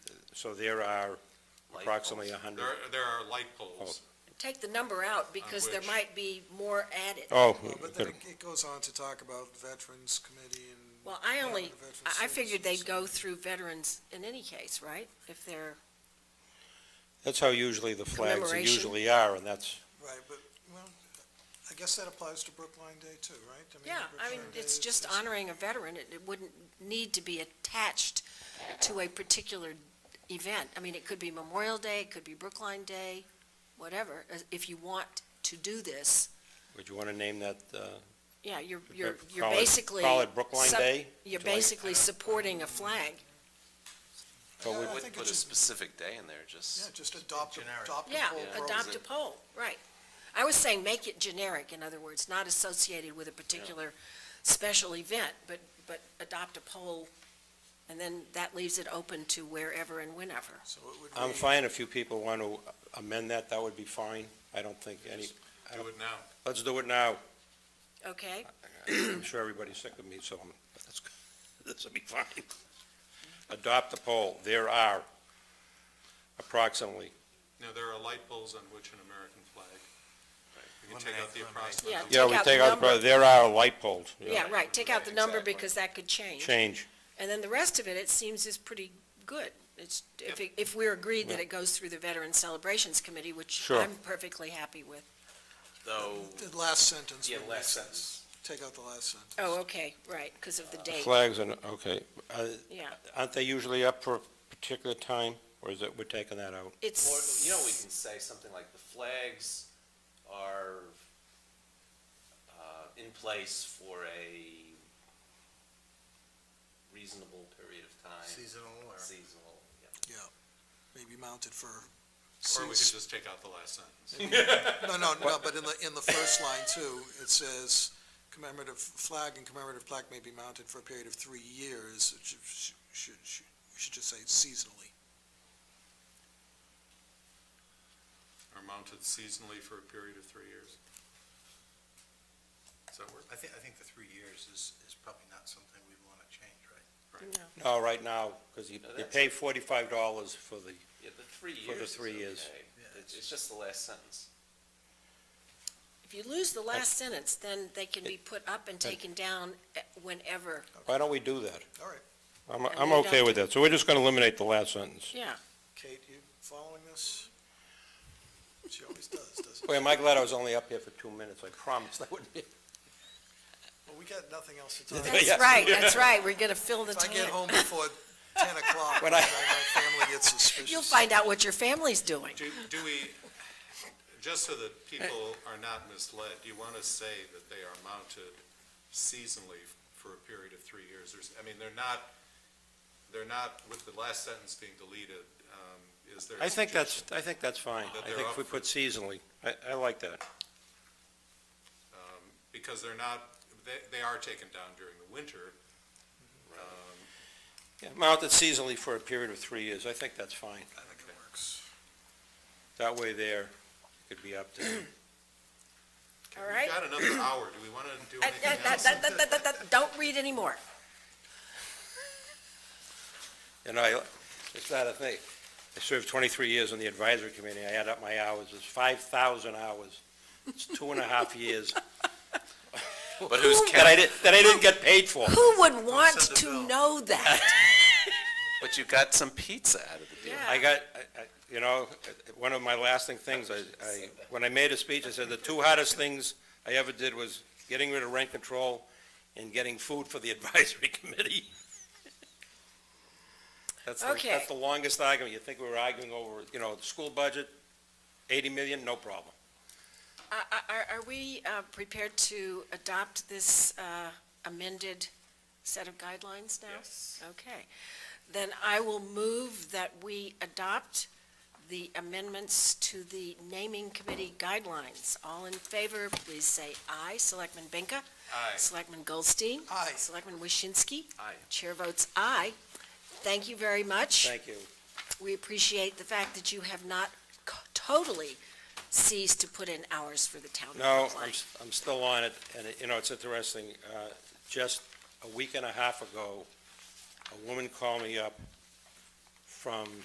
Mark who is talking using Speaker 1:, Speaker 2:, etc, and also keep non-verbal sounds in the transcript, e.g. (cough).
Speaker 1: So there are
Speaker 2: Light
Speaker 1: approximately
Speaker 2: poles.
Speaker 1: 100.
Speaker 3: There, there are light poles.
Speaker 4: Take the number out because there
Speaker 3: which-
Speaker 4: might be more added.
Speaker 1: Oh,
Speaker 5: Well, But then it- it goes on to talk about Veterans Committee and.
Speaker 4: Well, I only,
Speaker 5: Department of Veterans
Speaker 4: I I figured they'd
Speaker 5: Services.
Speaker 4: go through veterans in any case, right? If they're,
Speaker 1: that's how usually the flags
Speaker 4: Commemoration.
Speaker 1: usually are, and that's,
Speaker 5: Right, but, well, I guess that applies to Brookline Day too, right? mean,
Speaker 4: yeah, I mean,
Speaker 5: Brookline
Speaker 4: it's
Speaker 5: Day
Speaker 4: just
Speaker 5: is-
Speaker 4: honoring a veteran. It it wouldn't need to be attached to a particular event. I mean, it could be Memorial Day, it could be Brookline Day, whatever. As- If you want to do this,
Speaker 1: would you want to name that? uh,
Speaker 4: yeah, you're, you're, you're
Speaker 1: call it-
Speaker 4: basically.
Speaker 1: Call it Brookline
Speaker 4: sup-
Speaker 1: Day?
Speaker 4: You're
Speaker 1: Would you like-
Speaker 4: basically supporting a flag.
Speaker 1: But
Speaker 4: Oh.
Speaker 1: we-
Speaker 5: I
Speaker 2: Wouldn't
Speaker 5: think
Speaker 2: put
Speaker 5: it
Speaker 2: a
Speaker 5: should-
Speaker 2: specific day in there,
Speaker 5: Yeah,
Speaker 2: just,
Speaker 5: just adopt, a-
Speaker 3: Generic.
Speaker 5: adopt the
Speaker 4: Yeah,
Speaker 5: whole
Speaker 2: Yeah.
Speaker 5: program.
Speaker 4: adopt a poll, right. I was saying make it generic, in other words, not associated with a particular special event, but, but adopt a poll, and then that leaves it open to wherever and whenever.
Speaker 5: So it would
Speaker 1: I'm
Speaker 5: read-
Speaker 1: fine if you people want to amend that, that would be fine. I don't think any, I
Speaker 3: Do it now.
Speaker 1: let's do it now. (clears throat)
Speaker 4: Okay?
Speaker 1: I'm sure everybody's sick of me, so I'm- that's, (laughs) this will be fine. Adopt the poll. There are approximately.
Speaker 3: No, there are light poles on which an American flag. You can take out the
Speaker 4: Yeah.
Speaker 3: approximate.
Speaker 1: Yeah, we
Speaker 4: Take out
Speaker 1: take
Speaker 4: the
Speaker 1: out,
Speaker 4: number.
Speaker 1: the- there are light poles.
Speaker 4: Yeah, right, take out the number
Speaker 2: Exactly.
Speaker 4: because that could change.
Speaker 1: Change.
Speaker 4: And then the rest of it, it seems is pretty good. It's, if, it- if we're agreed that it goes through the Veterans Celebrations Committee, which
Speaker 1: Sure.
Speaker 4: I'm perfectly happy with.
Speaker 2: though,
Speaker 5: The last sentence.
Speaker 2: yeah,
Speaker 5: would
Speaker 2: last
Speaker 5: be-
Speaker 2: sentence.
Speaker 5: Take out the last sentence.
Speaker 4: Oh, okay, right, because of the date,
Speaker 1: Flags and, okay. Uh,
Speaker 4: yeah.
Speaker 1: Aren't they usually up for a particular time, or is it, we're taking that out?
Speaker 2: Or,
Speaker 4: It's.
Speaker 2: you know, we can say something like the flags are, uh, in place for a reasonable period of time. Seasonal or? Seasonal, yeah.
Speaker 5: Maybe mounted for.
Speaker 3: Or we could
Speaker 5: seats.
Speaker 3: just take out the last sentence.
Speaker 5: No, no, no, but in the, in the first line too, it says commemorative flag and commemorative plaque may be mounted for a period of three years. It should, should, should- we should just say seasonally.
Speaker 3: Are mounted seasonally for a period of three years. Does that work?
Speaker 6: I think, I think the three years is, is probably not something we want to change, right?
Speaker 4: No.
Speaker 1: No, right now, because you
Speaker 2: No,
Speaker 1: you
Speaker 2: that's-
Speaker 1: pay forty-five dollars for the,
Speaker 2: Yeah, the three
Speaker 1: For the
Speaker 2: years is
Speaker 1: three years.
Speaker 2: okay.
Speaker 6: Yeah,
Speaker 2: It's, it's just the last sentence.
Speaker 4: If you lose the last sentence, then they can be put up and taken down eh, whenever.
Speaker 1: why don't we do that?
Speaker 5: All right.
Speaker 1: I'm,
Speaker 4: And
Speaker 1: I'm
Speaker 4: we
Speaker 1: okay
Speaker 4: don't-
Speaker 1: with that, so we're just gonna eliminate the last sentence.
Speaker 4: Yeah.
Speaker 5: Kate, you following this? She always does, doesn't
Speaker 1: Boy, am I glad I was only up here for two minutes, I promise, that wouldn't be.
Speaker 5: Well, we got nothing else to talk about.
Speaker 4: That's right, that's right. We're gonna fill the
Speaker 5: If I get
Speaker 4: time.
Speaker 5: home before ten o'clock,
Speaker 1: When
Speaker 5: then
Speaker 1: I-
Speaker 5: my family gets suspicious.
Speaker 4: You'll find out what your family's doing.
Speaker 3: Do, do we, just so that people are not misled, do you want to say that they are mounted seasonally for a period of three years? There's, I mean, they're not, they're not, with the last sentence being deleted, um, is there? a
Speaker 1: I think that's,
Speaker 3: suggestion,
Speaker 1: I think that's fine,
Speaker 3: That
Speaker 1: I
Speaker 3: they're
Speaker 1: think if
Speaker 3: up
Speaker 1: we
Speaker 3: for-
Speaker 1: put seasonally, I, I like that.
Speaker 3: um, Because they're not, they, they are taken down during the winter. Um,
Speaker 1: Yeah, Mounted seasonally for a period of three years, I think that's fine,
Speaker 5: I think it works.
Speaker 1: that way there, it could be up to,
Speaker 4: All
Speaker 3: We've
Speaker 4: right?
Speaker 3: got another hour. Do we want to do
Speaker 4: Uh, uh,
Speaker 3: anything
Speaker 4: uh,
Speaker 3: else?
Speaker 4: uh, uh, uh, uh, Don't read anymore.
Speaker 1: and I, it's not a thing. I served twenty-three years on the advisory committee, I add up my hours, it's five thousand hours, it's two and a half years.
Speaker 2: But who's
Speaker 1: That I
Speaker 2: counting?
Speaker 1: did that I didn't get paid for.
Speaker 4: Who would want
Speaker 6: send the
Speaker 4: to
Speaker 6: bill.
Speaker 4: know (laughs) that?
Speaker 2: But you got some pizza out of the deal.
Speaker 1: I got, I- I- you know, one of my lasting things, I, I, when I made a speech, I said the two hardest things I ever did was getting rid of rent control and getting food for the (laughs) advisory committee. That's, the-
Speaker 4: Okay.
Speaker 1: that's the longest argument. You think we were arguing over, you know, the school budget, eighty million, no problem.
Speaker 4: Are- Uh, Are, are- are we uh, prepared to adopt this uh, amended set of guidelines now?
Speaker 2: Yes.
Speaker 4: Okay. Then I will move that we adopt the amendments to the naming committee guidelines. All in favor, please say aye. Selectman Benka?
Speaker 3: Aye.
Speaker 4: Selectman Goldstein?
Speaker 5: Aye.
Speaker 4: Selectman Waschinsky?
Speaker 2: Aye.
Speaker 4: Chair votes aye. Thank you very much.
Speaker 1: Thank you.
Speaker 4: We appreciate the fact that you have not c- totally ceased to put in hours for the town. of
Speaker 1: No,
Speaker 4: Brookline.
Speaker 1: I'm, s- I'm still on it, and, it- you know, it's interesting, uh, just a week and a half ago, a woman called me up from